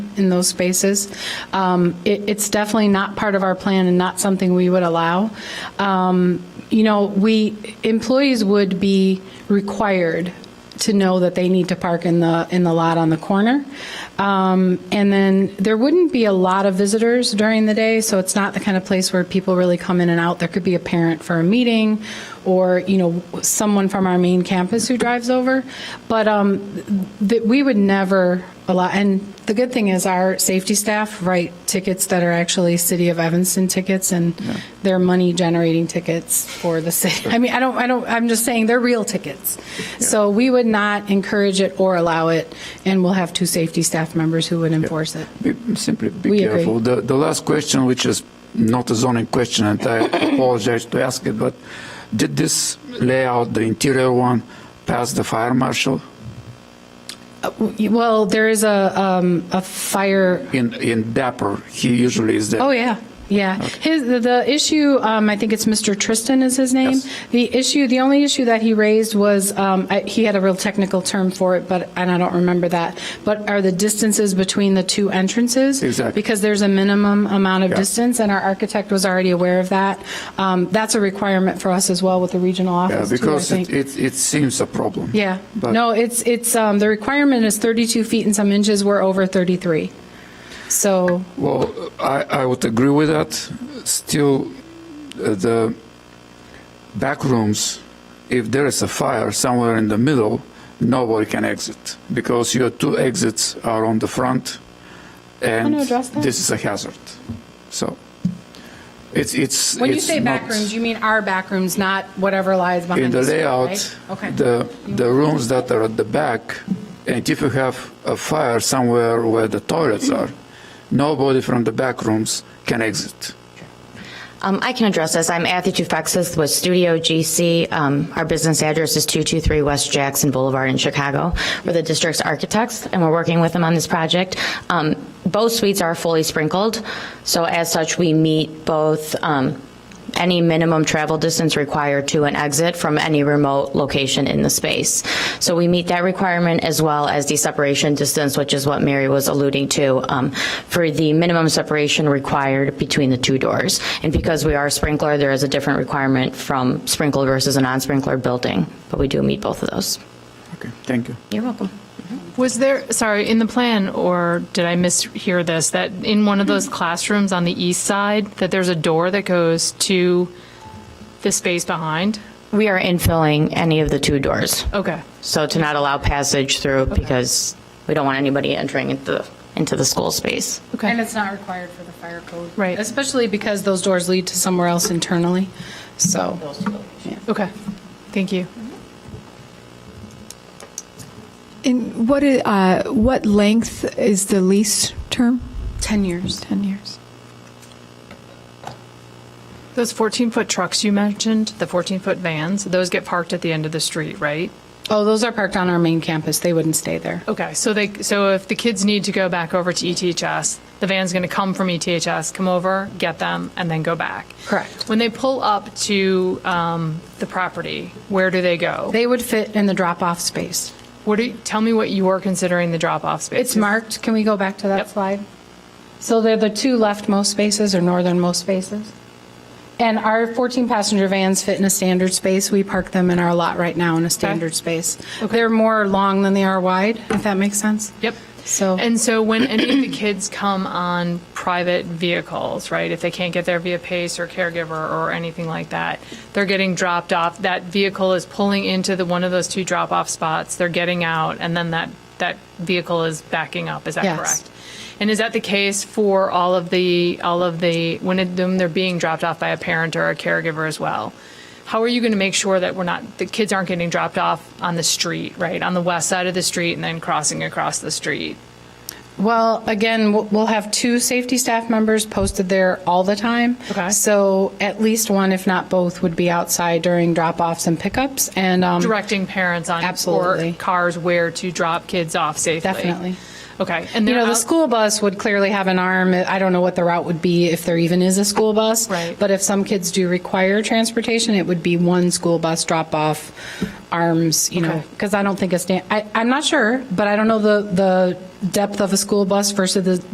in those spaces. Um, it- It's definitely not part of our plan and not something we would allow. Um, You know, we, employees would be required to know that they need to park in the, in the lot on the corner. Um, And then there wouldn't be a lot of visitors during the day, so it's not the kind of place where people really come in and out. There could be a parent for a meeting or, you know, someone from our main campus who drives over. But um, that we would never allow, and the good thing is our safety staff write tickets that are actually City of Evanston tickets and they're money generating tickets for the city. I mean, I don't, I don't, I'm just saying they're real tickets. So we would not encourage it or allow it, and we'll have two safety staff members who would enforce it. Be- Simply be We agree. careful. The, the last question, which is not a zoning question, and I apologize to ask it, but did this layout, the interior one, pass the fire marshal Well, there is a, um, a fire, in in Dapper? He usually is there. oh, yeah, yeah. His, the- the issue, um, I think it's Mr. Tristan is his name. Yes. The issue, the only issue that he raised was, um, I- he had a real technical term for it, but, and I don't remember that, but are the distances between the two entrances? Exactly. Because there's a minimum amount of Yeah. distance, and our architect was already aware of that. Um, That's a requirement for us as well with the regional Yeah, office, too, I because think. it, it, it seems a problem. Yeah. But No, it's, it's, um, the requirement is 32 feet and some inches. We're over 33. So, Well, I, I would agree with that. Still, uh, the back rooms, if there is a fire somewhere in the middle, nobody can exit because your two exits are on the front, and no, address that. this is a hazard. So, it's it's. when you it's say back not- rooms, you mean our back rooms, not whatever lies behind. in the us, layout, right? Okay. the, the rooms that are at the back, and if you have a fire somewhere where the toilets are, nobody from the back rooms can exit. Um, I can address this. I'm Athy Tufexis with Studio GC. Um, Our business address is 223 West Jackson Boulevard in Chicago. We're the district's architects, and we're working with them on this project. Um, Both suites are fully sprinkled, so as such, we meet both um, any minimum travel distance required to an exit from any remote location in the space. So we meet that requirement as well as the separation distance, which is what Mary was alluding to, um, for the minimum separation required between the two doors. And because we are a sprinkler, there is a different requirement from sprinkler versus a non-sprinkler building, but we do meet both of those. Okay, thank you. You're welcome. Was there, sorry, in the plan, or did I mishear this, that in one of those classrooms on the east side, that there's a door that goes to the space behind? We are infilling any of the two doors, Okay. so to not allow passage through because we don't want anybody entering into, into the school space. And it's not required for the fire code. Right. Especially because those doors lead to somewhere else internally, so. Okay. Thank you. And what, i- uh, what length is the lease term? 10 years. 10 years. Those 14-foot trucks you mentioned, the 14-foot vans, those get parked at the end of the street, right? Oh, those are parked on our main campus. They wouldn't stay there. Okay, so they, so if the kids need to go back over to E ETHS, the van's going to come from E ETHS, come over, get them, and then go back? Correct. When they pull up to um, the property, where do they go? They would fit in the drop-off space. What do you, tell me what you are considering the drop-off space? It's marked. Can we go back to that Yep. slide? So they're the two leftmost spaces or northernmost spaces. And our 14 passenger vans fit in a standard space. We park them in our lot right now in a standard space. They're more long than they are wide, if that makes sense. Yep. So- And so when any of the kids come on private vehicles, right, if they can't get there via PACE or caregiver or anything like that, they're getting dropped off. That vehicle is pulling into the, one of those two drop-off spots. They're getting out, and then that, that vehicle is backing up. Is that Yes. correct? And is that the case for all of the, all of the, when it- when they're being dropped off by a parent or a caregiver as well? How are you going to make sure that we're not, the kids aren't getting dropped off on the street, right? On the west side of the street and then crossing across the street? Well, again, we'll- we'll have two safety staff members posted there all the time. Okay. So at least one, if not both, would be outside during drop-offs and pickups. And um, Directing parents on, Absolutely. or cars where to drop kids off safely? Definitely. Okay. And You they're know, the out- school bus would clearly have an arm. I don't know what the route would be if there even is a school bus. Right. But if some kids do require transportation, it would be one school bus drop off, arms, you know, Okay. because I don't think a stand, I, I'm not sure, but I don't know the, the depth of a school bus versus the